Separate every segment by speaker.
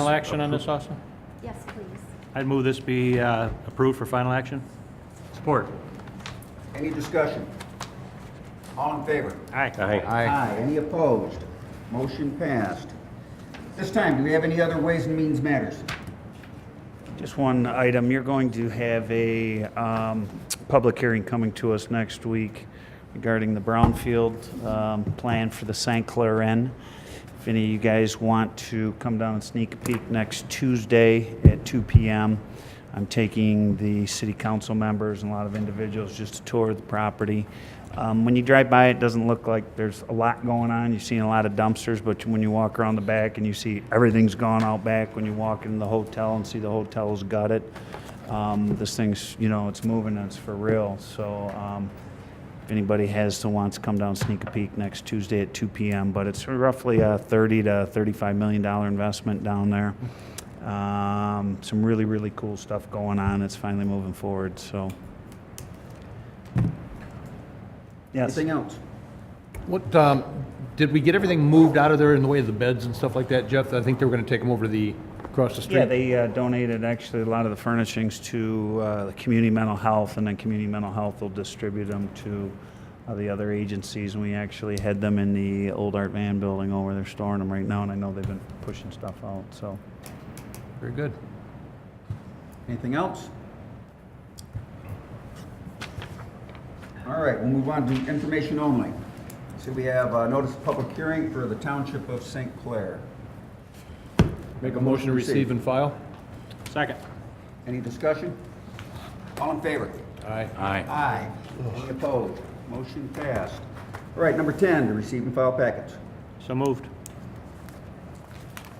Speaker 1: Final action on this also?
Speaker 2: Yes, please.
Speaker 1: I'd move this be uh, approved for final action. Support.
Speaker 3: Any discussion? All in favor?
Speaker 1: Aye.
Speaker 3: Aye. Any opposed? Motion passed. This time, do we have any other Ways and Means Matters?
Speaker 4: Just one item, you're going to have a um, public hearing coming to us next week regarding the brownfield um, plan for the St. Clair Inn. If any of you guys want to come down and sneak a peek next Tuesday at 2 PM, I'm taking the city council members and a lot of individuals just to tour the property. Um, When you drive by, it doesn't look like there's a lot going on. You've seen a lot of dumpsters, but when you walk around the back and you see everything's gone out back, when you walk in the hotel and see the hotel's gutted, um, this thing's, you know, it's moving and it's for real. So um, if anybody has the wants, come down, sneak a peek next Tuesday at 2 PM. But it's roughly a 30 to 35 million dollar investment down there. Um, Some really, really cool stuff going on. It's finally moving forward, so. Yes.
Speaker 3: Anything else?
Speaker 5: What, um, did we get everything moved out of there in the way of the beds and stuff like that, Jeff? I think they were gonna take them over to the, across the street.
Speaker 4: Yeah, they uh, donated actually a lot of the furnishings to uh, the community mental health, and then community mental health will distribute them to uh, the other agencies. And we actually had them in the old Art Van building over there storing them right now, and I know they've been pushing stuff out, so.
Speaker 5: Very good.
Speaker 3: Anything else? All right, we'll move on to information only. So we have a notice of public hearing for the Township of St. Clair.
Speaker 5: Make a motion to receive and file?
Speaker 1: Second.
Speaker 3: Any discussion? All in favor?
Speaker 5: Aye.
Speaker 3: Aye. Any opposed? Motion passed. All right, number 10, to receive and file packets.
Speaker 1: So moved.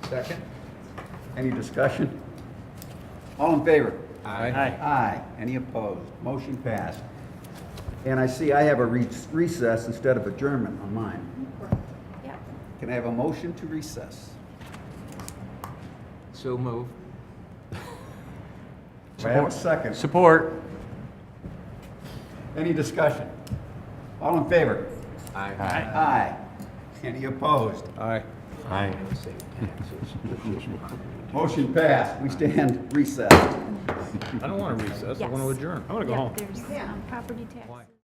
Speaker 3: Second. Any discussion? All in favor?
Speaker 5: Aye.
Speaker 1: Aye.
Speaker 3: Aye. Any opposed? Motion passed. And I see I have a re- recess instead of adjournment on mine.
Speaker 2: Yeah.
Speaker 3: Can I have a motion to recess?
Speaker 6: So move.
Speaker 3: Do I have a second?
Speaker 1: Support.
Speaker 3: Any discussion? All in favor?
Speaker 6: Aye.
Speaker 3: Aye. Any opposed?
Speaker 5: Aye.
Speaker 6: Aye.
Speaker 3: Motion passed. We stand recessed.
Speaker 5: I don't wanna recess, I
Speaker 2: Yes.
Speaker 5: wanna adjourn.
Speaker 1: I want to go
Speaker 2: Yeah,
Speaker 1: home.
Speaker 2: There's um, property taxes.